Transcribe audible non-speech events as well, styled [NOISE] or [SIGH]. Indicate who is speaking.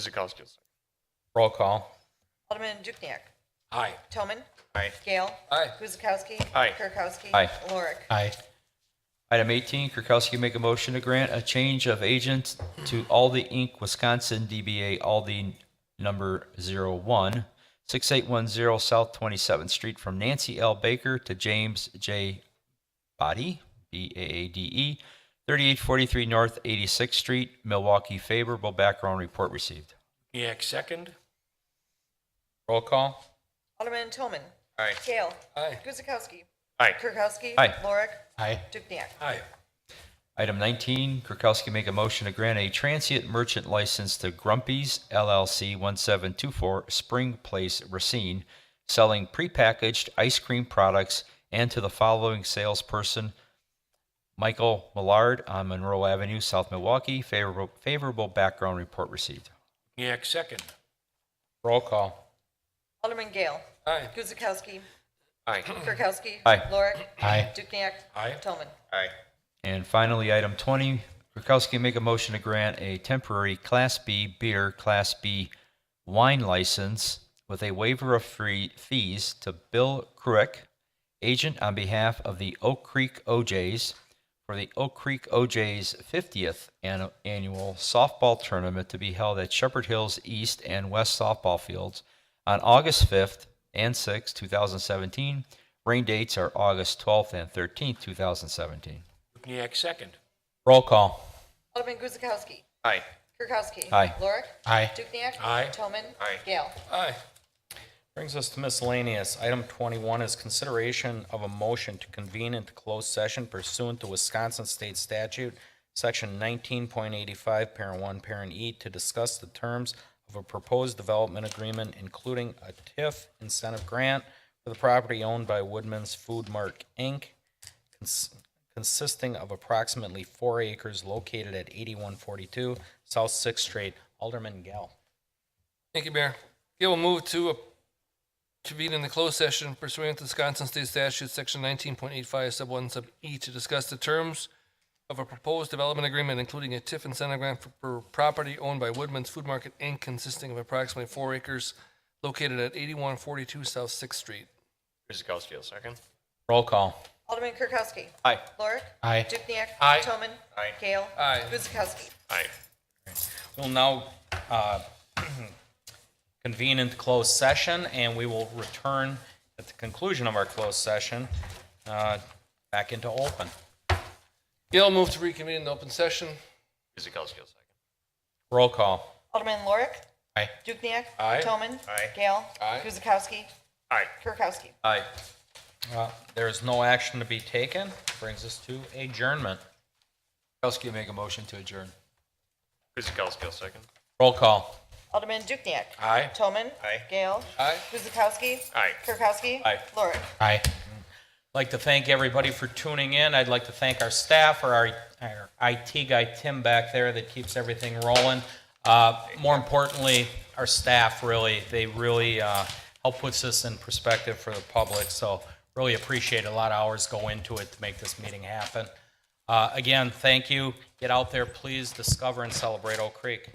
Speaker 1: Guzekowski.
Speaker 2: Roll call.
Speaker 3: Alderman Dukniak.
Speaker 4: Aye.
Speaker 3: Toman.
Speaker 4: Aye.
Speaker 3: Gale.
Speaker 4: Aye.
Speaker 3: Guzekowski.
Speaker 1: Aye.
Speaker 3: Kirkowski.
Speaker 2: Aye.
Speaker 3: Lorick.
Speaker 5: Aye.
Speaker 2: Item 18, Kirkowski make a motion to grant a change of agent to Aldi Inc., Wisconsin, DBA Aldi number 01, 6810 South 27th Street from Nancy L. Baker to James J. Body, B-A-A-D-E, 3843 E, North 86th Street, Milwaukee. Favorable background report received.
Speaker 4: Dukenyak second.
Speaker 2: Roll call.
Speaker 3: Alderman Toman.
Speaker 4: Aye.
Speaker 3: Gale.
Speaker 4: Aye.
Speaker 3: Guzekowski.
Speaker 1: Aye.
Speaker 3: Kirkowski.
Speaker 2: Aye.
Speaker 3: Lorick.
Speaker 5: Aye.
Speaker 3: Dukniak.
Speaker 4: Aye.
Speaker 2: Item 19, Kirkowski make a motion to grant a transient merchant license to Grumpy's LLC 1724 Spring Place Racine, selling prepackaged ice cream products and to the following salesperson, Michael Millard on Monroe Avenue, South Milwaukee. Favorable favorable background report received.
Speaker 4: Dukenyak second.
Speaker 2: Roll call.
Speaker 3: Alderman Gale.
Speaker 4: Aye.
Speaker 3: Guzekowski.
Speaker 1: Aye.
Speaker 3: Kirkowski.
Speaker 2: Aye.
Speaker 3: Lorick.
Speaker 5: Aye.
Speaker 3: Dukniak.
Speaker 4: Aye.
Speaker 3: Toman.
Speaker 1: Aye.
Speaker 2: And finally, item 20, Kirkowski make a motion to grant a temporary Class B beer, Class B wine license with a waiver of free fees to Bill Kruick, agent on behalf of the Oak Creek OJs for the Oak Creek OJs 50th an- Annual Softball Tournament to be held at Shepherd Hills East and West Softball Fields on August 5th and 6th, 2017. Rain dates are August 12th and 13th, 2017.
Speaker 4: Dukenyak second.
Speaker 2: Roll call.
Speaker 3: Alderman Guzekowski.
Speaker 1: Aye.
Speaker 3: Kirkowski.
Speaker 2: Aye.
Speaker 3: Lorick.
Speaker 5: Aye.
Speaker 3: Dukniak.
Speaker 4: Aye.
Speaker 3: Toman.
Speaker 1: Aye.
Speaker 3: Gale.
Speaker 4: Aye.
Speaker 6: Brings us to miscellaneous. Item 21 is consideration of a motion to convene into closed session pursuant to Wisconsin State Statute, Section 19.85, Parent 1, Parent E, to discuss the terms of a proposed development agreement, including a TIF incentive grant for the property owned by Woodman's Food Mark, Inc., cons- consisting of approximately four acres located at 8142 South Sixth Street. Alderman Gale.
Speaker 7: Thank you, Mayor. Okay, we'll move to a- convene in the closed session pursuant to Wisconsin State Statute, Section 19.85, Sub 1, Sub E, to discuss the terms of a proposed development agreement, including a TIF incentive grant for- for property owned by Woodman's Food Market, Inc., consisting of approximately four acres located at 8142 South Sixth Street.
Speaker 1: Guzekowski, a second.
Speaker 2: Roll call.
Speaker 3: Alderman Kirkowski.
Speaker 1: Aye.
Speaker 3: Lorick.
Speaker 5: Aye.
Speaker 3: Dukniak.
Speaker 4: Aye.
Speaker 3: Toman.
Speaker 1: Aye.
Speaker 3: Gale.
Speaker 7: Aye.
Speaker 3: Guzekowski.
Speaker 1: Aye.
Speaker 6: We'll now uh, [CLEARS THROAT] convene into closed session, and we will return at the conclusion of our closed session uh, back into open.
Speaker 7: Gail, move to reconvene in open session.
Speaker 1: Guzekowski, a second.
Speaker 2: Roll call.
Speaker 3: Alderman Lorik.
Speaker 5: Aye.
Speaker 3: Dukniak.
Speaker 4: Aye.
Speaker 3: Toman.
Speaker 1: Aye.
Speaker 3: Gale.
Speaker 7: Aye.
Speaker 3: Guzekowski.
Speaker 1: Aye.
Speaker 3: Kirkowski.
Speaker 2: Aye.
Speaker 6: Uh, There is no action to be taken. Brings us to adjournment.
Speaker 2: Kirkowski make a motion to adjourn.
Speaker 1: Guzekowski, a second.
Speaker 2: Roll call.
Speaker 3: Alderman Dukniak.
Speaker 4: Aye.
Speaker 3: Toman.
Speaker 1: Aye.
Speaker 3: Gale.
Speaker 7: Aye.
Speaker 3: Guzekowski.
Speaker 1: Aye.
Speaker 3: Kirkowski.
Speaker 6: Aye.
Speaker 3: Lorick.
Speaker 5: Aye.
Speaker 6: I'd like to thank everybody for tuning in. I'd like to thank our staff or our our IT guy, Tim, back there that keeps everything rolling. Uh, More importantly, our staff, really, they really uh, help puts this in perspective for the public. So really appreciate it. a lot of hours go into it to make this meeting happen. Uh, Again, thank you. Get out there, please discover and celebrate Oak Creek.